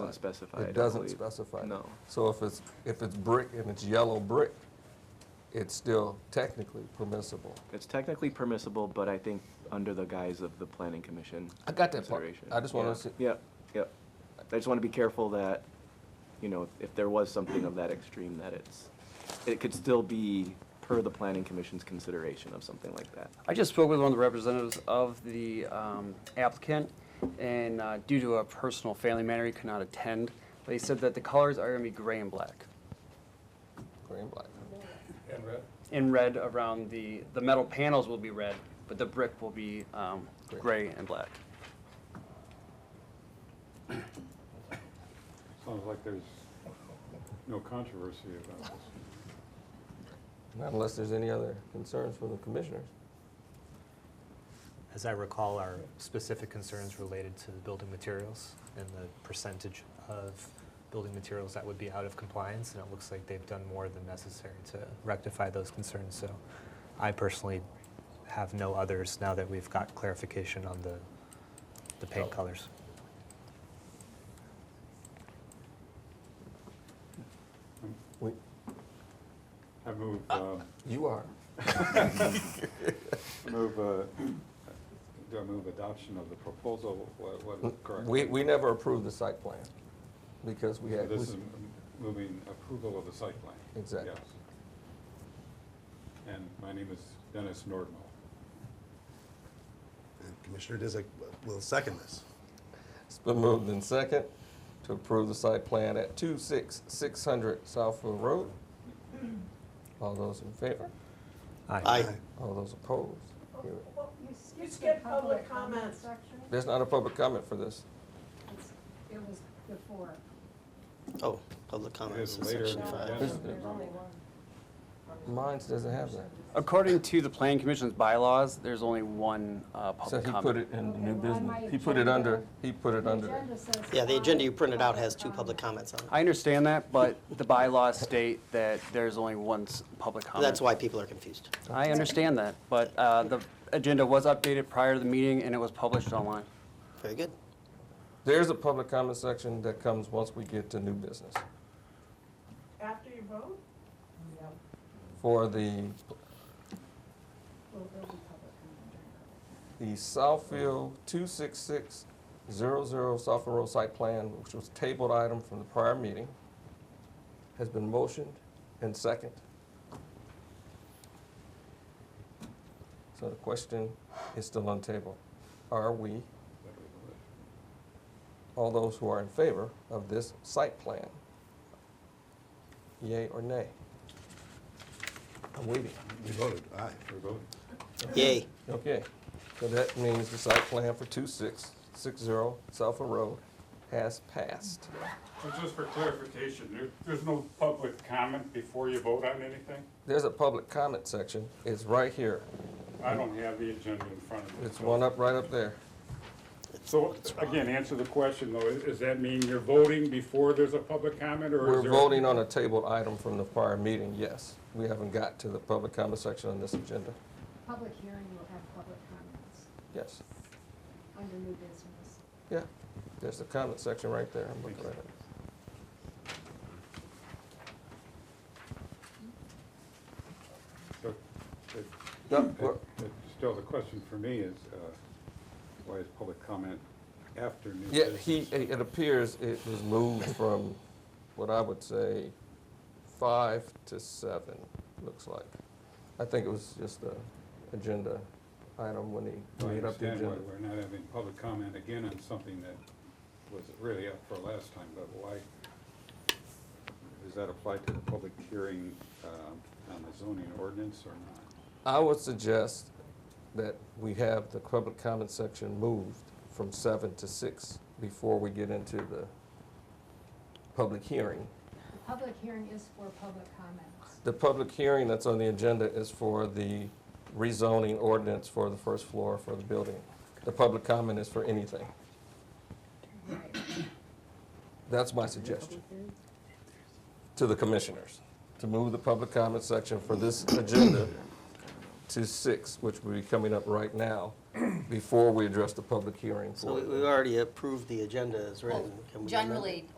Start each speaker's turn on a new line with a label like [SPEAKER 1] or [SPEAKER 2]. [SPEAKER 1] not specified. I
[SPEAKER 2] It doesn't
[SPEAKER 1] believe.
[SPEAKER 2] specify.
[SPEAKER 1] No.
[SPEAKER 2] So if it's, if it's brick and it's yellow brick, it's still technically permissible.
[SPEAKER 1] It's technically permissible, but I think under the guise of the planning commission.
[SPEAKER 2] I got that part.
[SPEAKER 1] consideration.
[SPEAKER 2] I just wanna
[SPEAKER 1] Yeah.
[SPEAKER 2] see,
[SPEAKER 1] Yep, yep. I just want to be careful that, you know, if there was something of that extreme, that it's, it could still be per the planning commission's consideration of something like that.
[SPEAKER 3] I just spoke with one of the representatives of the um, applicant, and uh, due to a personal family matter, he could not attend. But he said that the colors are going to be gray and black,
[SPEAKER 2] green and black.
[SPEAKER 4] And red?
[SPEAKER 3] and red around the, the metal panels will be red, but the brick will be um, gray and black.
[SPEAKER 4] Sounds like there's no controversy about this.
[SPEAKER 2] Not unless there's any other concerns from the commissioners.
[SPEAKER 5] As I recall, our specific concerns related to the building materials and the percentage of building materials that would be out of compliance, and it looks like they've done more than necessary to rectify those concerns. So I personally have no others now that we've got clarification on the, the paint colors.
[SPEAKER 4] I move, uh,
[SPEAKER 2] You are.
[SPEAKER 4] move, uh, do I move adoption of the proposal? What what is correct?
[SPEAKER 2] We, we never approved the site plan because we
[SPEAKER 4] So
[SPEAKER 2] had,
[SPEAKER 4] This is m- moving approval of the site plan.
[SPEAKER 2] Exactly.
[SPEAKER 4] Yes. And my name is Dennis Nordmal.
[SPEAKER 6] And Commissioner Disick will second this.
[SPEAKER 2] it's been moved in second to approve the site plan at 26600 Southfield Road. All those in favor?
[SPEAKER 5] Aye.
[SPEAKER 2] All those opposed? Hear it.
[SPEAKER 7] Well, You
[SPEAKER 8] You
[SPEAKER 7] skipped the
[SPEAKER 8] skip
[SPEAKER 7] public
[SPEAKER 8] public
[SPEAKER 7] comment
[SPEAKER 8] comments.
[SPEAKER 7] section.
[SPEAKER 2] There's not a public comment for this.
[SPEAKER 7] It's- It was before.
[SPEAKER 6] Oh, public comments
[SPEAKER 4] is
[SPEAKER 6] in
[SPEAKER 4] later in
[SPEAKER 6] section
[SPEAKER 4] the
[SPEAKER 6] five.
[SPEAKER 4] agenda.
[SPEAKER 7] There's only one.
[SPEAKER 2] Mines doesn't have that.
[SPEAKER 3] According to the planning commission's bylaws, there's only one
[SPEAKER 2] So
[SPEAKER 3] uh,
[SPEAKER 2] he
[SPEAKER 3] public comment.
[SPEAKER 2] put it in the new
[SPEAKER 7] Okay, well, on my
[SPEAKER 2] business. He put it under,
[SPEAKER 7] agenda-
[SPEAKER 2] he put it
[SPEAKER 7] The
[SPEAKER 2] under. there.
[SPEAKER 7] agenda says
[SPEAKER 6] Yeah, the agenda you
[SPEAKER 7] five
[SPEAKER 6] printed out has two public
[SPEAKER 7] comments.
[SPEAKER 6] comments on
[SPEAKER 3] I understand that, but the bylaws state that there's only one s- public
[SPEAKER 6] it.
[SPEAKER 3] comment.
[SPEAKER 6] That's why people are confused.
[SPEAKER 3] I understand that, but uh, the agenda was updated prior to the meeting and it was published online.
[SPEAKER 6] Very good.
[SPEAKER 2] There's a public comment section that comes once we get to new business
[SPEAKER 8] After you vote?
[SPEAKER 7] Yep,
[SPEAKER 2] for the,
[SPEAKER 7] well, there'll be public comment during
[SPEAKER 2] the
[SPEAKER 7] public
[SPEAKER 2] Southfield 26600 Southfield Road Site Plan, which was tabled item from the prior meeting, has been motioned and second. So the question is still on table. Are we, all those who are in favor of this site plan, yea or nay? I'm waiting.
[SPEAKER 6] You voted, aye.
[SPEAKER 4] We're voting.
[SPEAKER 6] Yay.
[SPEAKER 2] Okay, so that means the site plan for 2660 Sulphur Road has passed.
[SPEAKER 4] So just for clarification, there, there's no public comment before you vote on anything?
[SPEAKER 2] There's a public comment section, it's right here.
[SPEAKER 4] I don't have the agenda in front of me.
[SPEAKER 2] It's
[SPEAKER 4] so-
[SPEAKER 2] one up, right up there.
[SPEAKER 4] So, again, answer the question though, is- does that mean you're voting before there's a public comment or is
[SPEAKER 2] We're
[SPEAKER 4] there?
[SPEAKER 2] voting on a tabled item from the prior meeting, yes. We haven't got to the public comment section on this agenda,
[SPEAKER 7] comment. Public hearing will have public comments
[SPEAKER 2] yes.
[SPEAKER 7] under new business.
[SPEAKER 2] Yeah, there's the comment section right there, I'm looking at it.
[SPEAKER 4] So, it-
[SPEAKER 2] No,
[SPEAKER 4] it-
[SPEAKER 2] we're-
[SPEAKER 4] it- Still, the question for me is, uh, why is public comment after new
[SPEAKER 2] Yeah,
[SPEAKER 4] business?
[SPEAKER 2] he, it it appears it was moved from what I would say five to seven, looks like. I think it was just a agenda item when he
[SPEAKER 4] I
[SPEAKER 2] made up the
[SPEAKER 4] understand why
[SPEAKER 2] agenda.
[SPEAKER 4] we're not having public comment again on something that was really up for last time, but why does that apply to the public hearing um, on the zoning ordinance or not?
[SPEAKER 2] I would suggest that we have the public comment section moved from seven to six before we get into the public hearing.
[SPEAKER 7] The public hearing is for public comments.
[SPEAKER 2] The public hearing that's on the agenda is for the rezoning ordinance for the first floor for the building. The public comment is for anything.
[SPEAKER 7] Right.
[SPEAKER 2] That's my suggestion
[SPEAKER 6] Mm-hmm.
[SPEAKER 2] to the commissioners, to move the public comment section for this agenda to six, which will be coming up right now, before we address the public hearing
[SPEAKER 6] So
[SPEAKER 2] for
[SPEAKER 6] we-
[SPEAKER 2] it.
[SPEAKER 6] we already approved the agenda as
[SPEAKER 9] Well,
[SPEAKER 6] written. Can we amend it?
[SPEAKER 9] Generally,